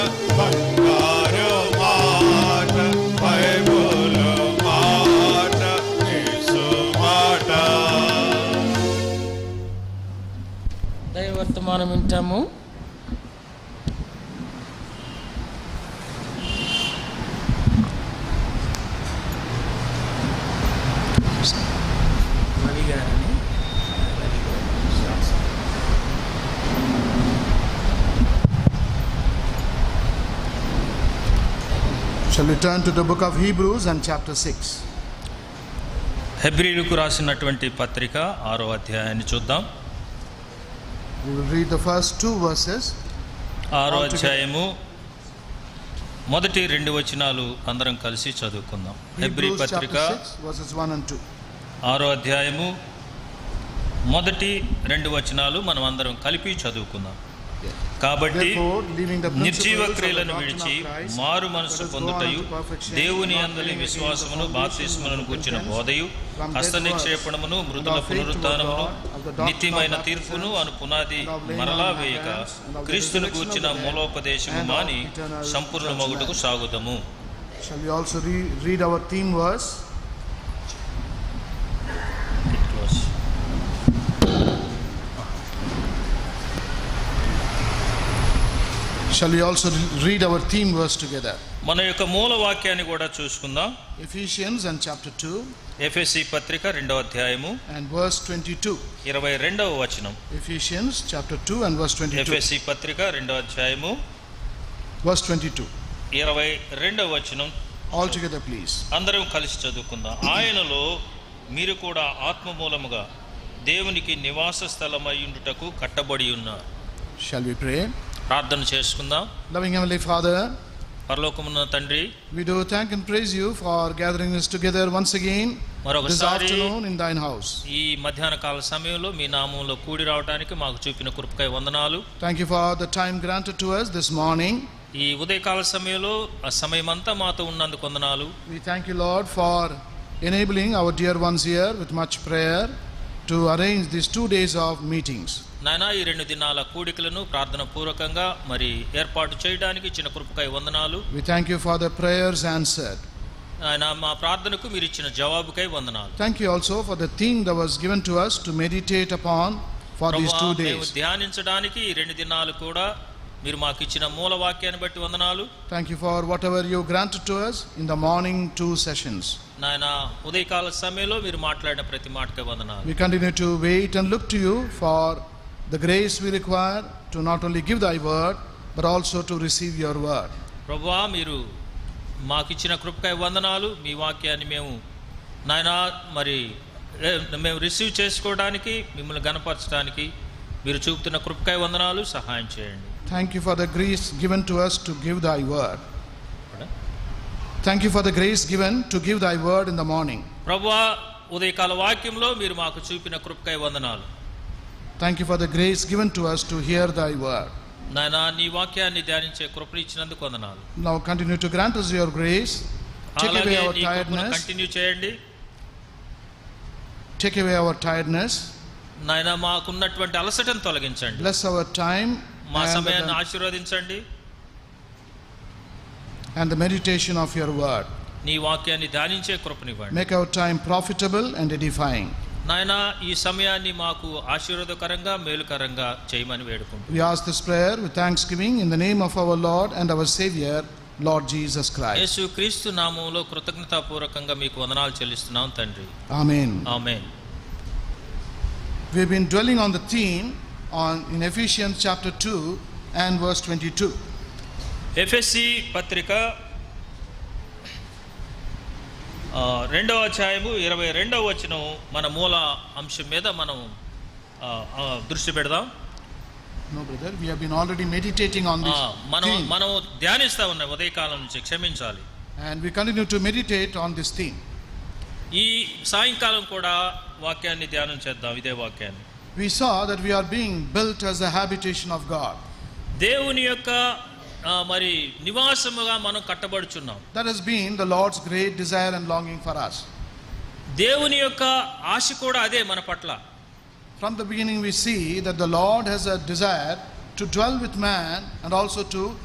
బంగారు మాట బైబులు మాట యేసు మాట దైవర్తమానం వింటాము Shall we turn to the book of Hebrews and chapter 6? హెబ్రిలకు రాసినటువంటి పత్రిక ఆరో అధ్యాయాన్ని చూద్దాం We will read the first two verses. ఆరో Altogether. అధ్యాయము మొదటి రెండు వచనాలు అందరం కలిసి చదువుకుందాం హెబ్రి Hebrews పత్రిక chapter 6, verses 1 and 2. ఆరో అధ్యాయము మొదటి రెండు వచనాలు మనం అందరం కలిపి చదువుకుందాం కాబట్టి Therefore, leaving the principles నిర్జీవ of the క్రియలను doctrine విడిచి of Christ, మారు మనసు let పొందుటయు us go on to perfection, దేవుని not అందలి laying again the విశ్వాసమును foundation బాప్తిస్ములను of కూర్చిన repentance, బోధయు from dead హస్త నిక్షేపణమును works, Mrudula and of faith toward పునరుత్థానమును God, of the doctrine నిత్యమైన of తీర్పును repentance, అను పునాది and of laying మరలా on of వేయక hands, and of the క్రీస్తును resurrection of కూర్చిన the dead, మూలోపదేశము and of మాని eternal Sampoorna మగుటకు judgment. సాగుదము Shall we also re- read our theme verse? Shall we also re- read our theme verse together? మన యొక్క మూల వాక్యాన్ని కూడా చూసుకుందాం Ephesians and chapter 2 ఎఫ్ఎస్సి పత్రిక రెండవ అధ్యాయము and verse 22. ఇరవై రెండవ వచనం Ephesians chapter 2 and verse 22. ఎఫ్ఎస్సి పత్రిక రెండవ అధ్యాయము Verse 22. ఇరవై రెండవ వచనం All together, please. అందరం కలిసి చదువుకుందాం ఆయనలో మీరు కూడా ఆత్మ మూలముగా దేవునికి నివాస స్థలమయ్యుండుటకు కట్టబడి ఉన్నారు Shall we pray? ప్రార్థన చేసుకుందాం Loving Heavenly Father, పరలోకమున్న తండ్రి We do thank and praise you for gathering us together once again this మరొకసారి afternoon in thine house. ఈ మధ్యాహ్న కాల సమయంలో మీ నామంలో కూడి రావడానికి మాకు చూపిన కృపకై వందనాలు Thank you for the time granted to us this morning. ఈ ఉదయకాల సమయంలో ఆ సమయమంతా మాతో ఉన్నందుకు వందనాలు We thank you, Lord, for enabling our dear ones here with much prayer to arrange these two days of meetings. నాయనా ఈ రెండు దినాల కూడికలను ప్రార్థన పూర్వకంగా మరి ఏర్పాటు చేయడానికి ఇచ్చిన కృపకై వందనాలు We thank you for the prayers answered. ఆయన మా ప్రార్థనకు మీరు ఇచ్చిన జవాబుకై వందనాలు Thank you also for the theme that was given to us to meditate upon for these ప్రభువా, two మేము days. ధ్యానించడానికి ఈ రెండు దినాలు కూడా మీరు మాకు ఇచ్చిన మూల వాక్యాన్ని బట్టి వందనాలు Thank you for whatever you granted to us in the morning two sessions. నాయన ఉదయకాల సమయంలో మీరు మాట్లాడిన ప్రతి మాటకే వందనాలు We continue to wait and look to you for the grace we require to not only give thy word, but also to receive your word. ప్రభువా మీరు మాకు ఇచ్చిన కృపకై వందనాలు మీ వాక్యాన్ని మేము నాయన మరి ఏ, మేము రిసీవ్ చేసుకోవడానికి మిమ్మల్ని గనపరచడానికి మీరు చూపుతున్న కృపకై వందనాలు సహాయం చేయండి Thank you for the grace given to us to give thy word. ఇక్కడ. Thank you for the grace given to give thy word in the morning. ప్రభువా ఉదయకాల వాక్యంలో మీరు మాకు చూపిన కృపకై వందనాలు Thank you for the grace given to us to hear thy word. నాయన నీ వాక్యాన్ని ధ్యానించే కృపను ఇచ్చినందుకు వందనాలు Now continue to grant us your grace. Take away అలాగే our నీ కృపను tiredness. కంటిన్యూ చేయండి Take away our tiredness. నాయన మాకున్నటువంటి అలసటను తొలగించండి Bless our time మా and uh, సమయాన్ని the, ఆశీర్వదించండి and the meditation of your word. నీ వాక్యాన్ని ధ్యానించే కృపనివ్వండి Make our time profitable and edifying. నాయన ఈ సమయాన్ని మాకు ఆశీర్వాదకరంగా మేలుకరంగా చేయమని వేడుకుంటున్నాం We ask this prayer with thanksgiving in the name of our Lord and our Savior, Lord Jesus Christ. యేసు క్రీస్తు నామంలో కృతజ్ఞతాపూర్వకంగా మీకు వందనాలు చెల్లిస్తున్నాం తండ్రి Amen. ఆమె We've been dwelling on the theme on in Ephesians chapter 2 and verse 22. ఎఫ్ఎస్సి పత్రిక ఆ, రెండవ అధ్యాయము ఇరవై రెండవ వచనం మన మూల అంశం మీద మనం ఆ, ఆ, దృష్టి పెడదాం No, brother, we have been already meditating on ఆ, this మనం theme, మనం ధ్యానిస్తా ఉన్నాం ఉదయకాలం నుంచి క్షమించాలి and we continue to meditate on this theme. ఈ సాయంకాలం కూడా వాక్యాన్ని ధ్యానం చేద్దాం ఇదే వాక్యాన్ని We saw that we are being built as the habitation of God. దేవుని యొక్క ఆ, మరి నివాసముగా మనం కట్టబడుచున్నాం That has been the Lord's great desire and longing for us. దేవుని యొక్క ఆశ కూడా అదే మన పట్ల From the beginning, we see that the Lord has a desire to dwell with man and also to